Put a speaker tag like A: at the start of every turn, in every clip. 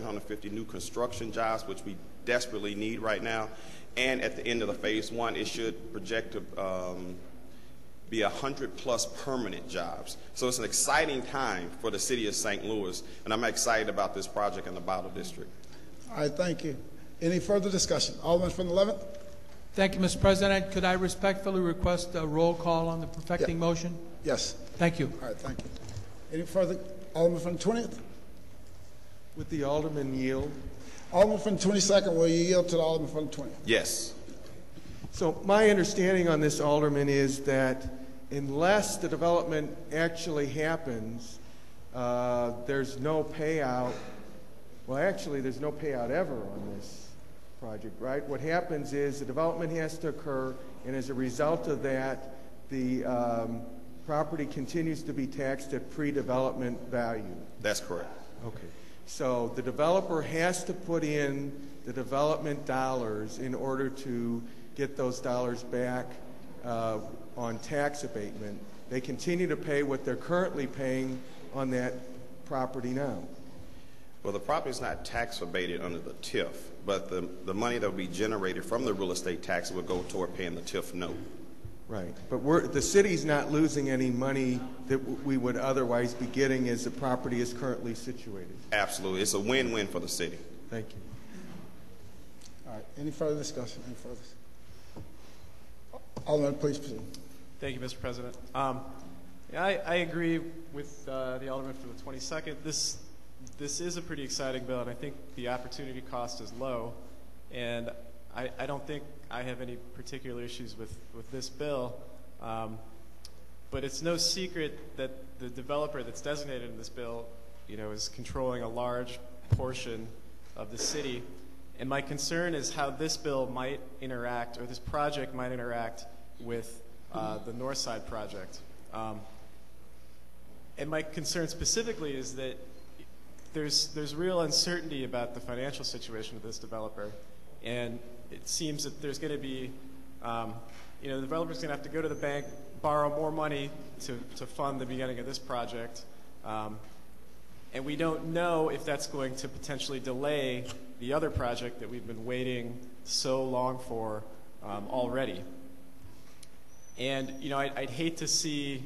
A: 750 new construction jobs, which we desperately need right now. And at the end of the phase one, it should project to um, be 100-plus permanent jobs. So it's an exciting time for the city of St. Louis, and I'm excited about this project in the Bottle District.
B: All right, thank you. Any further discussion? Alderman from the 11th?
C: Thank you, Mr. President. Could I respectfully request a roll call on the perfecting
B: Yeah.
C: motion?
B: Yes.
C: Thank you.
B: All right, thank you. Any further? Alderman from the 20th?
D: With the alderman yield.
B: Alderman from the 22nd, will you yield to the Alderman from the 20th?
A: Yes.
D: So my understanding on this, Alderman, is that unless the development actually happens, uh, there's no payout. Well, actually, there's no payout ever on this project, right? What happens is the development has to occur, and as a result of that, the um, property continues to be taxed at pre-development value.
A: That's correct.
D: Okay. So the developer has to put in the development dollars in order to get those dollars back uh, on tax abatement. They continue to pay what they're currently paying on that property now.
A: Well, the property is not tax abated under the TIF, but the, the money that will be generated from the real estate tax will go toward paying the TIF note.
D: Right. But we're, the city's not losing any money that w- we would otherwise be getting as the property is currently situated.
A: Absolutely. It's a win-win for the city.
D: Thank you.
B: All right, any further discussion? Any further? Alderman, please proceed.
E: Thank you, Mr. President. Um, yeah, I, I agree with uh, the alderman for the 22nd. This this is a pretty exciting bill, and I think the opportunity cost is low. And I, I don't think I have any particular issues with, with this bill. Um, but it's no secret that the developer that's designated in this bill, you know, is controlling a large portion of the city. And my concern is how this bill might interact, or this project might interact with uh, the North Side project. Um, and my concern specifically is that there's, there's real uncertainty about the financial situation of this developer. And it seems that there's going to be, um, you know, the developer's going to have to go to the bank, borrow more money to, to fund the beginning of this project. Um, and we don't know if that's going to potentially delay the other project that we've been waiting so long for um, already. And you know, I'd, I'd hate to see,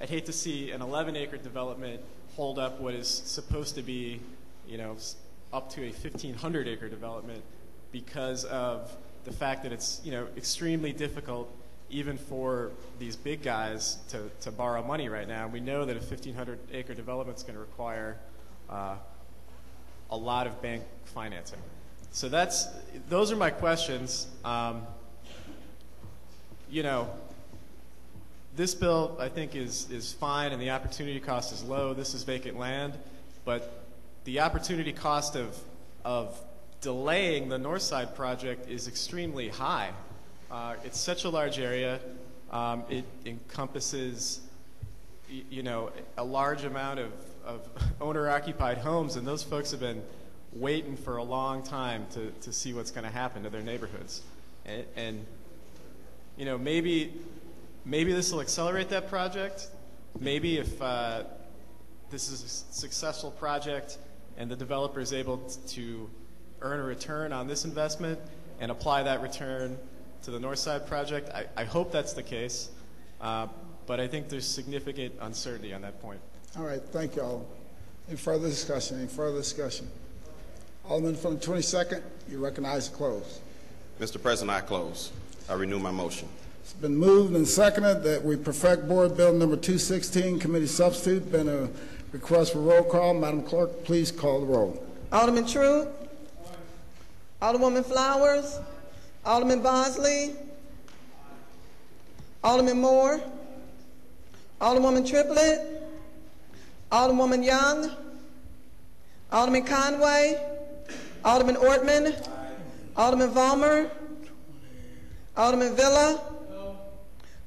E: I'd hate to see an 11-acre development hold up what is supposed to be, you know, s- up to a 1,500-acre development because of the fact that it's you know extremely difficult even for these big guys to, to borrow money right now. We know that a 1,500-acre development is going to require uh, a lot of bank financing. So that's those are my questions. Um, you know, this bill, I think, is, is fine and the opportunity cost is low. This is vacant land, but the opportunity cost of, of delaying the North Side project is extremely high. Uh, it's such a large area. Um, it encompasses, y- you know, a large amount of, of owner-occupied homes, and those folks have been waiting for a long time to, to see what's going to happen to their neighborhoods. And, and you know, maybe maybe this will accelerate that project. Maybe if uh, this is a s- successful project and the developer is able t- to earn a return on this investment and apply that return to the North Side project, I, I hope that's the case. Uh, but I think there's significant uncertainty on that point.
B: All right, thank you, Alderman. Any further discussion? Any further discussion? Alderman from the 22nd, you recognize the close.
A: Mr. President, I close. I renew my motion.
B: It's been moved and seconded that we perfect Board Bill Number 216, Committee Substitute. Been a request for roll call. Madam Clerk, please call the roll.
F: Alderman True. Alderwoman Flowers. Alderman Bosley. Alderman Moore. Alderwoman Triplett. Alderwoman Young. Alderman Conway. Alderman Ortman. Alderman Vollmer. Alderman Villa.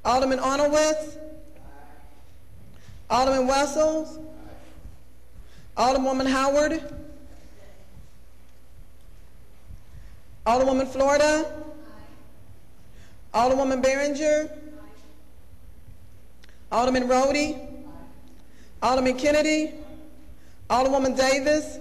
F: Alderman Honowitz. Alderman Wessels. Alderwoman Howard. Alderwoman Florida? Alderwoman Behringer? Alderman Rhodey? Alderman Kennedy? Alderwoman Davis?